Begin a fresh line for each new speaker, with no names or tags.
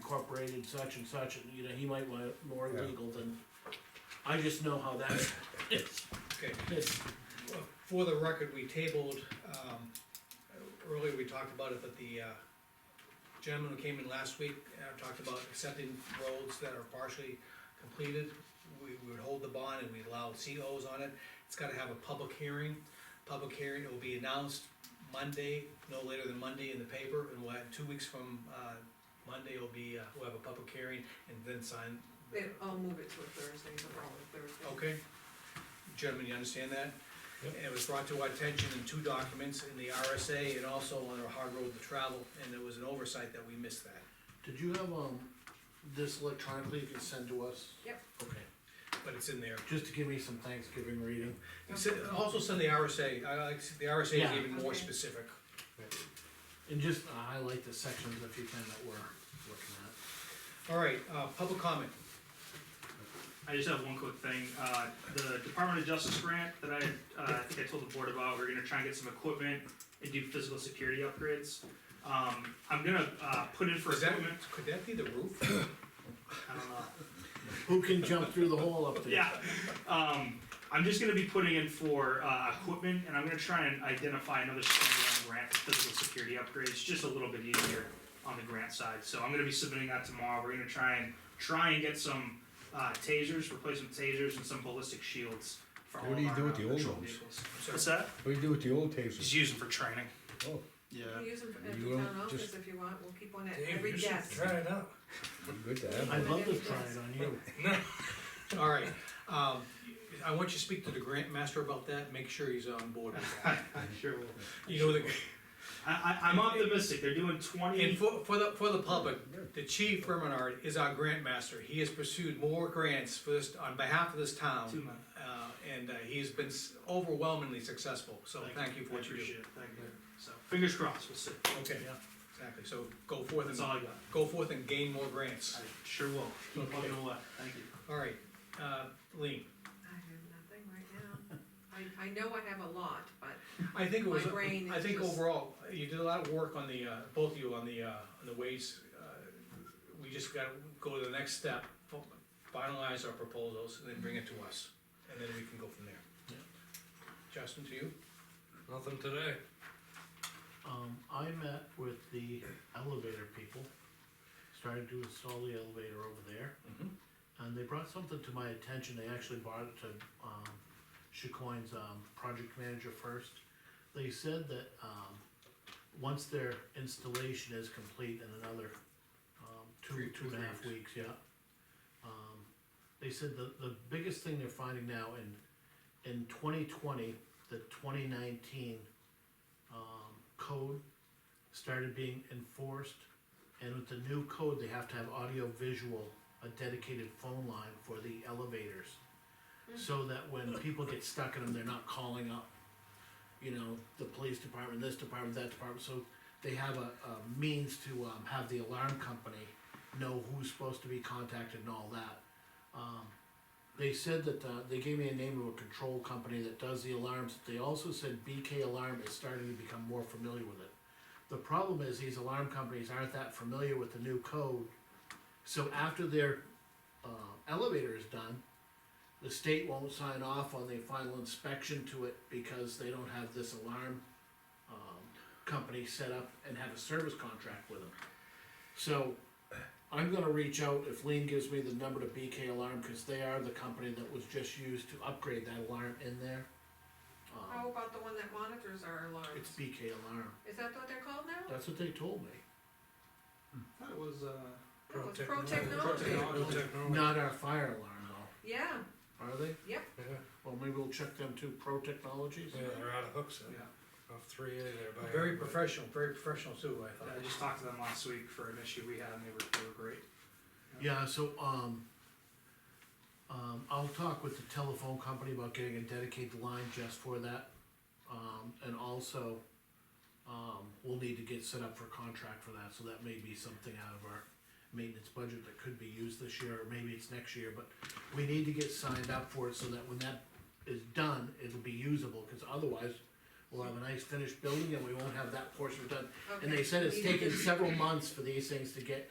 incorporated such and such, and, you know, he might want it more
Yeah.
legal than, I just know how that is.
Okay,
It's-
uh, for the record, we tabled, um, earlier we talked about it, but the, uh, gentleman who came in last week, uh, talked about accepting roads that are partially completed. We we would hold the bond and we allow COs on it, it's gotta have a public hearing, public hearing, it will be announced Monday, no later than Monday in the paper, and we'll have, two weeks from, uh, Monday will be, uh, we'll have a public hearing and then sign. the-
It, I'll move it to a Thursday, the following Thursday.
Okay, gentlemen, you understand that?
Yep.
And It was brought to our attention in two documents, in the RSA and also on our hard road to travel, and there was an oversight that we missed that.
Did you have, um, this electronically you can send to us?
Yep.
Okay,
But it's in there.
just to give me some Thanksgiving reading.
You said- Also send the RSA, I like, the RSA is
Yeah.
even more
Okay.
specific.
And just uh, highlight the sections if you can that we're looking at.
All right, uh, public comment,
I just have one quick thing. Uh, the Department of Justice grant that I, uh, I think I told the board about, we're gonna try and get some equipment and do physical security upgrades. Um, I'm gonna, uh, put in for
is that,
equipment,
could that be the roof?
I don't know.
Who can jump through the hole up there?
Yeah, um, I'm just gonna be putting in for, uh, equipment, and I'm gonna try and identify another standalone grant for physical security upgrades, just a little bit easier on the grant side, so I'm gonna be submitting that tomorrow, we're gonna try and, try and get some, uh, tasers, replacement tasers and some ballistic shields for all
What do
of
you do
our uh,
with the old
patrol
ones?
vehicles.
Sorry.
What's that?
What do you do with the old tasers?
Just use them for training.
Oh,
Yeah.
You can use them at
You
the
don't
town office
just-
if you want, we'll keep one at
Dave,
every
you should
desk.
try it out.
good to have.
I'd
one.
love to try it on you.
All right, um, I want you to speak to the grant master about that, make sure he's on board with that.
I sure will.
You know, the,
I, I, I'm optimistic. They're doing 20.
And for, for the, for the public, the chief Reminard is our grant master, he has pursued more grants for this, on behalf of this
Two
town.
months.
Uh, and, uh, he's been s- overwhelmingly successful, so thank you for what you do.
Appreciate it. Thank you. So, fingers crossed. We'll see.
Okay,
Yeah.
exactly, so go forth
That's
and,
all I got.
go forth and gain more grants,
I sure will. Keep
Okay.
plugging away. Thank you.
alright, uh, Lean,
I have nothing right now. I, I know I have a lot, but
I think it was, uh,
My brain
I
is
think
just-
overall, you did a lot of work on the, uh, both of you on the, uh, on the ways, uh, we just gotta go to the next step, fi- finalize our proposals, and then bring it to us, and then we can go from there.
Yeah.
Justin, to you?
Nothing today.
Um, I met with the elevator people, started to install the elevator over there.
Mm-hmm.
And they brought something to my attention, they actually brought it to, um, Chicoine's, um, project manager first. They said that, um, once their installation is complete in another, um, two,
Three-
two and a half
three
weeks, yeah. Um, they said the, the biggest thing they're finding now in, in twenty twenty, the twenty nineteen, um, code started being enforced. And with the new code, they have to have audio visual, a dedicated phone line for the elevators. So that when people get stuck in them, they're not calling up, you know, the police department, this department, that department, so they have a, a means to, um, have the alarm company know who's supposed to be contacted and all that. Um, they said that, uh, they gave me a name of a control company that does the alarms, they also said BK Alarm is starting to become more familiar with it. The problem is these alarm companies aren't that familiar with the new code. So after their uh, elevator is done, the state won't sign off on the final inspection to it because they don't have this alarm um, company set up and have a service contract with them. So I'm gonna reach out if Lean gives me the number to BK Alarm because they are the company that was just used to upgrade that alarm in there. Um,
how about the one that monitors our
It's
alarms?
BK Alarm.
Is that what they're called now?
That's what they told me.
That was, uh.
No, it's pro
Pro
technology.
technology.
Not our fire alarm though,
Yeah,
are they?
Yeah,
Well, maybe we'll check them too, Pro Technologies.
yeah, they're out of hooks, uh, off three A there by.
Very professional, very professional too, I
I
thought.
just talked to them last week for an issue we had, and they were, they were great.
Yeah, so, um, um, I'll talk with the telephone company about getting a dedicated line just for that. Um, and also, um, we'll need to get set up for contract for that, so that may be something out of our maintenance budget that could be used this year, or maybe it's next year, but we need to get signed up for it so that when that is done, it'll be usable, cause otherwise, we'll have a nice finished building and we won't have that portion done. And they
Okay.
said it's
You need
taken
to-
several months for these things to get